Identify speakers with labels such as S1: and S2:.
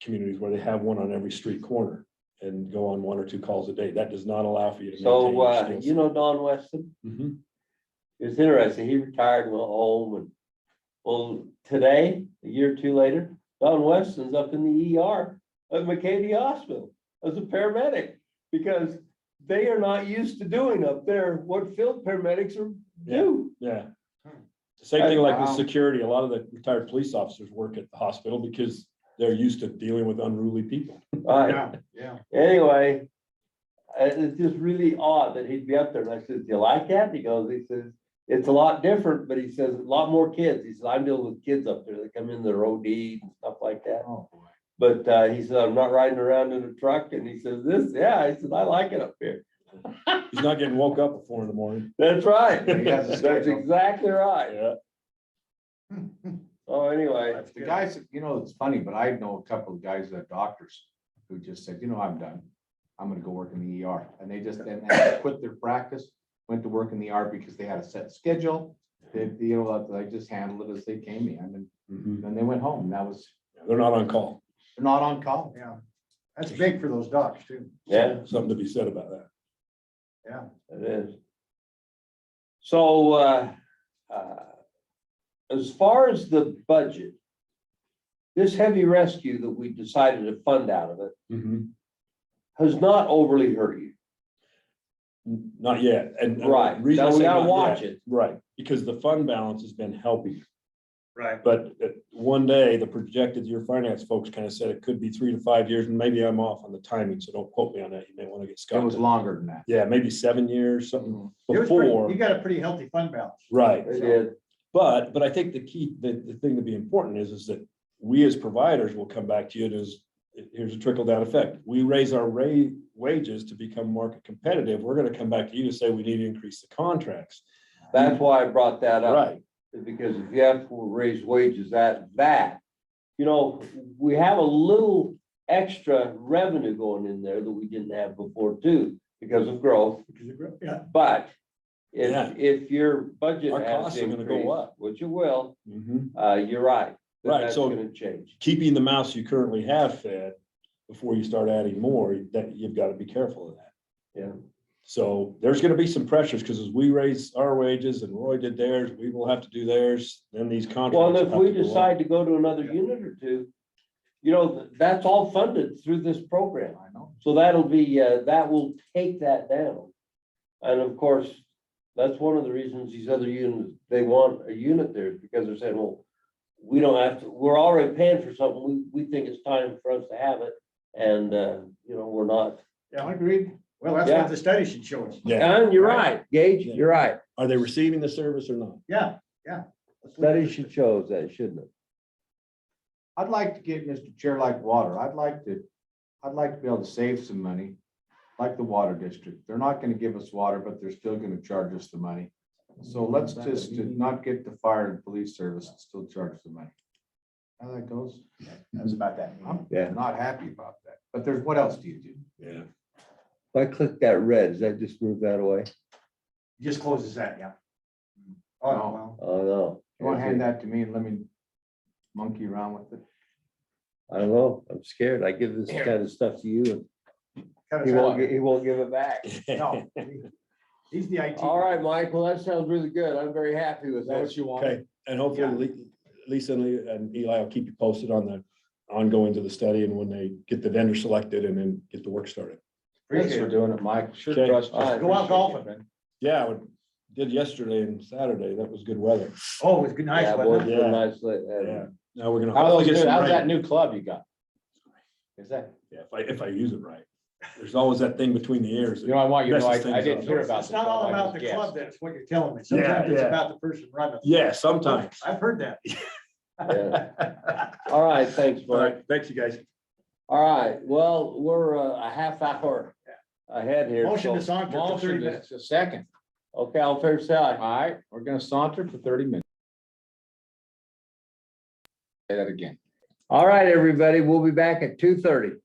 S1: communities where they have one on every street corner and go on one or two calls a day. That does not allow for you to.
S2: So,
S1: maintain your
S2: uh,
S1: skills.
S2: you know Don Weston,
S1: Mhm.
S2: it was interesting, he retired, went home and, well, today, a year or two later, Don Weston's up in the ER at McCady Hospital as a paramedic, because they are not used to doing up there what field paramedics are do.
S1: Yeah. The Same thing like
S2: Hmm. Wow.
S1: with security, a lot of the retired police officers work at the hospital because they're used to dealing with unruly people.
S2: Right.
S3: Yeah, yeah.
S2: anyway, uh, it's just really odd that he'd be up there. And I said, do you like that? And He goes, he says, it's a lot different, but he says, a lot more kids. He says, I'm dealing with kids up there that come in their OD and stuff like that.
S3: Oh, boy.
S2: But, uh, he said, I'm not riding around in a truck. And he says, this, yeah, he says, I like it up here.
S1: He's not getting woke up at four in the morning.
S2: That's right.
S3: He has a
S2: That's
S3: schedule.
S2: exactly right.
S1: Yeah.
S2: Oh, anyway,
S3: The guys, you know, it's funny, but I know a couple of guys that are doctors who just said, you know, I'm done. I'm gonna go work in the ER. And they just, and they quit their practice, went to work in the ER because they had a set schedule. They, you know, they just handled it as they came in and
S1: Mhm.
S3: then they went home. That was,
S1: They're not on call.
S3: they're not on call.
S4: Yeah, that's big for those docs too.
S2: yeah,
S1: Something to be said about that.
S4: Yeah,
S2: it is. So, uh, uh, as far as the budget, this heavy rescue that we decided to fund out of it has not overly hurt you.
S1: N- Not yet, and. and the
S2: Right,
S1: reason I
S2: now we
S1: say
S2: gotta
S1: not
S2: watch
S1: yet-
S2: it.
S1: Right, because the fund balance has been helping,
S4: right.
S1: but uh, one day, the projected year finance folks kind of said it could be three to five years, and maybe I'm off on the timing, so don't quote me on that, you may want to get
S3: It
S1: Scott.
S3: was
S1: to-
S3: longer than that.
S1: Yeah, maybe seven years, something
S3: Mhm.
S4: It was pretty-
S1: before,
S4: You got a pretty healthy fund balance.
S1: right,
S2: It is,
S1: but, but I think the key, the, the thing to be important is, is that we as providers will come back to you, and is, here's a trickle down effect, we raise our ra- wages to become market competitive, we're gonna come back to you to say we need to increase the contracts,
S2: that's why I brought that up.
S1: right?
S2: because if you have to raise wages at that, you know, we have a little extra revenue going in there that we didn't have before too, because of growth,
S4: Which is a gr- Yeah,
S2: but
S1: Yeah.
S2: if, if your budget
S1: Our
S2: has
S1: costs are gonna go
S2: increased,
S1: up.
S2: which it will,
S1: Mhm.
S2: uh, you're right. that
S1: Right,
S2: That's
S1: so-
S2: gonna change.
S1: Keeping the mouse you currently have fed before you start adding more, that you've got to be careful of that.
S2: Yeah.
S1: So there's going to be some pressures because as we raise our wages and Roy did theirs, we will have to do theirs, then these contracts.
S2: Well, and if
S1: have
S2: we
S1: to go up.
S2: decide to go to another unit or two, you know, th- that's all funded through this program.
S3: I know.
S2: So that'll be, uh, that will take that down. And of course, that's one of the reasons these other units, they want a unit there, is because they're saying, well, we don't have to, we're already paying for something, we, we think it's time for us to have it, and, uh, you know, we're not.
S4: yeah, I agree. Well, that's
S2: Yeah.
S4: what the study should show us.
S1: Yeah,
S2: And you're right, Gage,
S1: Yeah.
S2: you're right,
S1: are they receiving the service or not?
S4: Yeah, yeah.
S2: study should show us that, shouldn't it?
S3: I'd like to get Mr. Chair like water. I'd like to, I'd like to be able to save some money, like the water district. They're not gonna give us water, but they're still gonna charge us the money. So let's just not get the fire and police service and still charge the money. How that goes?
S4: That's about that.
S3: I'm
S5: Yeah.
S3: not happy about that, but there's, what else do you do?
S1: Yeah.
S5: If I click that red, does that just move that away?
S4: Just closes that, yeah. Oh,
S3: No.
S4: well,
S5: Oh, no.
S3: You wanna hand that to me and let me monkey around with it?
S5: I don't know. I'm scared. I give this kind of stuff to you and
S4: cut
S5: he
S4: us
S5: won't,
S4: out.
S5: gi- he won't give it back.
S4: No, he- He's the IT.
S2: All right, Michael, that sounds really good, I'm very happy with that.
S3: you
S1: Okay, and hopefully Le- Lisa and Le- and Eli will keep you posted on the ongoing to the study and when they get the vendor selected and then get the work started.
S3: Thanks for
S4: Appreciate it.
S3: doing it, Mike. Sure
S1: Okay.
S3: trust.
S2: All right.
S4: Go out golfing.
S1: Yeah, I would- did yesterday and Saturday, that was good weather.
S4: Oh, it was good,
S2: Yeah,
S4: nice,
S2: boy,
S4: wasn't
S2: it's
S4: it?
S2: been
S1: Yeah.
S2: nice, li- uh,
S1: Yeah, now we're gonna.
S3: How's
S1: hopefully get
S3: those new-
S1: some
S3: how's
S1: rain.
S3: that new club you got? Is that?
S1: Yeah, if I, if I use it right. There's always that thing between the ears.
S3: You know, I want you to know,
S1: Messes
S3: I, I
S1: things
S3: didn't
S1: up.
S3: hear about.
S4: It's not all about the club, that's what you're telling me.
S1: Yeah,
S4: Sometimes it's
S1: yeah.
S4: about the person running. it.
S1: Yeah, sometimes.
S4: I've heard that.
S2: yeah. All right, thanks,
S1: All
S2: Mike.
S1: right, thanks, you guys.
S2: All right, well, we're uh, a half hour ahead here.
S4: Motion to
S2: so-
S4: saunter for thirty minutes.
S3: a second.
S2: Okay, all fair
S3: All
S2: side.
S3: right, we're gonna saunter for thirty minutes. Say that again.
S5: All right, everybody, we'll be back at two thirty.